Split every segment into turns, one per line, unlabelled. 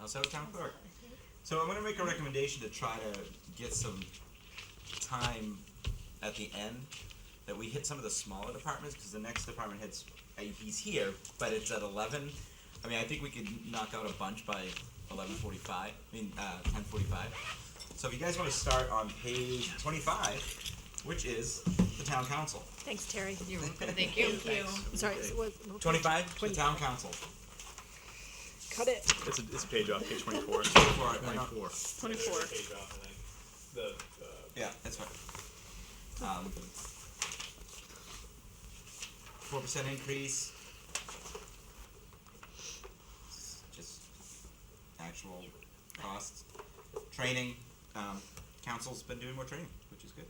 Also, town clerk. So I'm going to make a recommendation to try to get some time at the end that we hit some of the smaller departments because the next department heads uh, he's here, but it's at 11. I mean, I think we could knock out a bunch by 11:45. I mean, uh, 10:45. So if you guys want to start on page 25, which is the town council.
Thanks, Terry.
You're welcome. Thank you.
I'm sorry,
Okay.
it was.
25, the town council.
Cut it.
It's a, it's a page off, page twenty-four.
For, uh, no,
Twenty-four.
page off and then the, the
Yeah, that's right. Um, four percent increase. Just actual costs. Training. Um, council's been doing more training, which is good.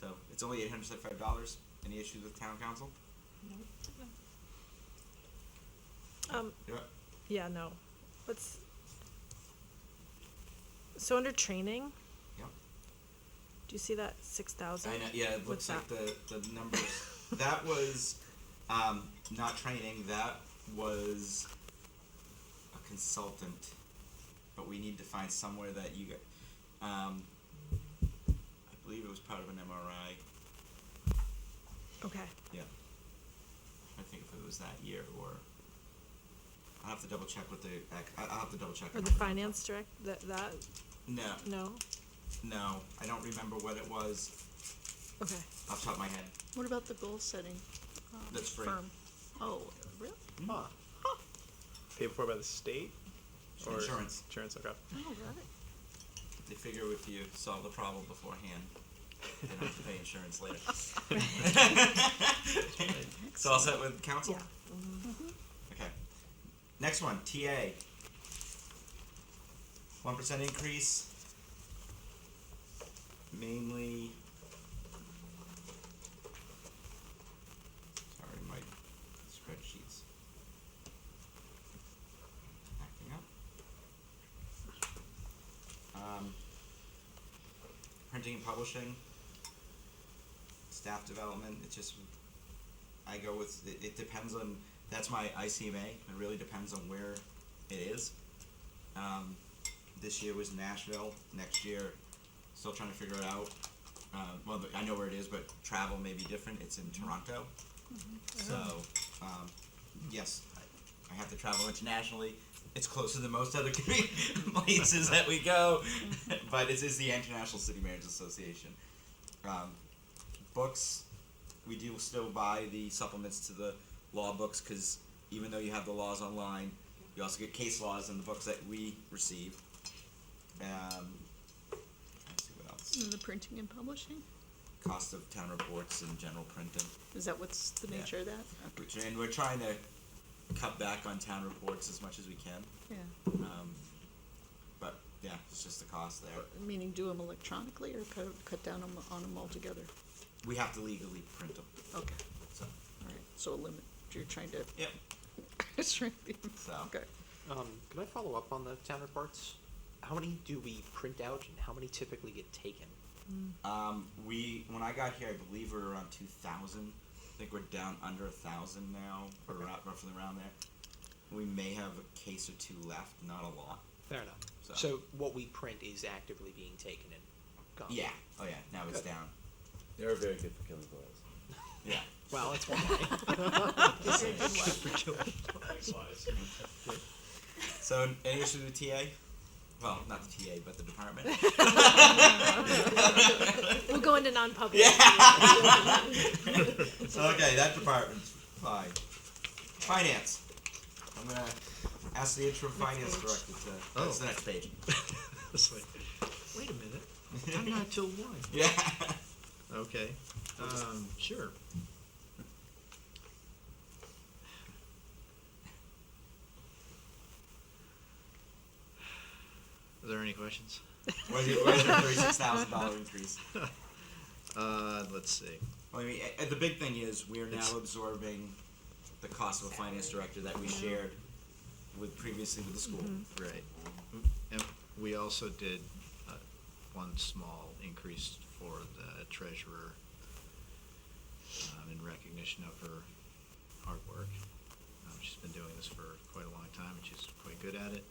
So it's only eight hundred seventy-five dollars. Any issues with town council?
Um,
Yeah.
yeah, no. Let's. So under training,
Yeah.
do you see that six thousand?
I know, yeah, it looks like the, the numbers. that was um, not training, that was a consultant. But we need to find somewhere that you get. Um, I believe it was part of an MRI.
Okay,
Yeah. I think if it was that year or. I'll have to double check with the. ac- I- I'll have to double check.
or
on
the
that.
finance direct, that, that,
No,
no?
no. I don't remember what it was
Okay.
off the top of my head.
What about the goal setting? um,
That's free.
Firm. Oh, really?
Huh. Paid for by the state? or
Insurance.
Insurance, okay.
Oh, got it.
They figure if you solve the problem beforehand, they don't have to pay insurance later. so all set with council?
Yeah.
Okay. Next one, TA. One percent increase. Mainly. Sorry, my spreadsheets. Acting up. Um, printing and publishing, staff development. It just, I go with, it, it depends on, that's my ICMA. It really depends on where it is. Um, this year was Nashville. Next year, still trying to figure it out. Uh, well, the- I know where it is, but travel may be different. It's in Toronto. So, um, yes, I, I have to travel internationally. It's closer than most other places that we go, but it is the International City Marriage Association. Um, books, we do still buy the supplements to the law books because even though you have the laws online, you also get case laws in the books that we receive. Um, trying to see what else.
And the printing and publishing?
Cost of town reports and general printing.
Is that what's the
Yeah.
nature of that?
Which, and we're trying to cut back on town reports as much as we can.
Yeah.
Um, but yeah, it's just the cost there.
Meaning do them electronically or cut, cut down on, on them altogether?
We have to legally print them.
Okay,
So
all right. So a limit, you're trying
yep.
to shrink the,
So
okay.
Um, can I follow up on the town reports? How many do we print out and how many typically get taken?
um, we when I got here, I believe we were around two thousand. I think we're down under a thousand now, or
Okay.
ra- roughly around there. We may have a case or two left, not a lot.
Fair enough.
So-
So, what we print is actively being taken and gone.
Yeah. Oh yeah. Now it's
Good.
down.
They're very good for killing boys.
Yeah.
Well, that's one way.
slides.
So any issues with TA? Well, not the TA, but the department.
We'll go into non-public.
So, okay, that department's fine. Finance. I'm gonna ask the interim finance
page.
director to. That's the next page.
It's like, wait a minute, I'm not till one.
Yeah.
Okay, um, sure. Are there any questions?
Where's your, where's your thirty-six thousand dollar increase?
Uh, let's see.
Well, I mean, a- the big thing is we are now
It's-
absorbing the cost of a finance director that we shared with previously with the school.
Mm-hmm.
Right. And we also did uh, one small increase for the treasurer um, in recognition of her hard work. Um, She's been doing this for quite a long time, and she's quite good at it,